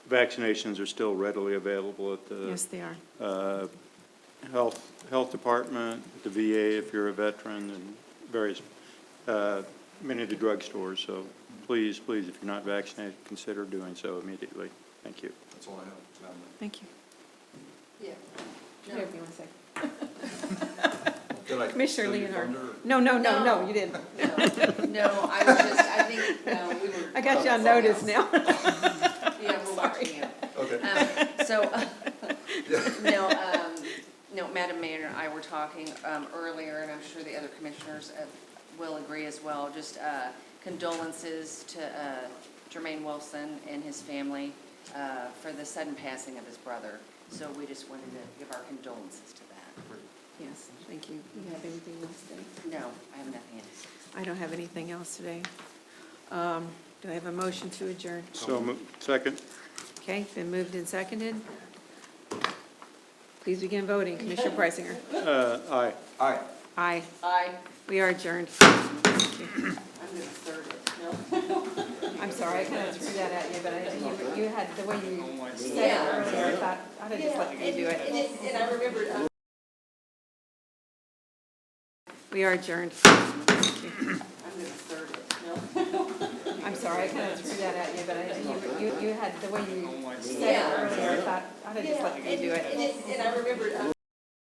vaccinations are still readily available at the Yes, they are. uh, Health, Health Department, the VA if you're a veteran, and various, uh, many of the drugstores. So please, please, if you're not vaccinated, consider doing so immediately. Thank you. That's all I have, Madam Mayor. Thank you. Yeah. Here, if you want a second. Did I Commissioner steal your Leonard. thunder? No, no, no, no, No. you didn't. No, I was just, I think, no, we were. I got you on notice now. Yeah, we're watching you. Okay. Um, So, uh, no, um, no, Madam Mayor and I were talking um, earlier, and I'm sure the other commissioners uh, will agree as well, just uh, condolences to uh, Jermaine Wilson and his family uh, for the sudden passing of his brother. So we just wanted to give our condolences to that. Yes, thank you. You have anything else today? No, I have nothing else. I don't have anything else today. Um, Do I have a motion to adjourn? So, mo- second? Okay, been moved and seconded. Please begin voting. Commissioner Preisinger? Uh, Aye. Aye. Aye. I, We are adjourned. I'm going to third it. No. I'm sorry, I kind of threw that at you, but I, you, you had, the way you said it Yeah. earlier, I thought, I would have just let you do And it. it- And I remembered, uh, We are adjourned. I'm going to third it. No. I'm sorry, I kind of threw that at you, but I, you, you, you had, the way you said it earlier, I thought, I would have just let you do it. And it- and I remembered, uh,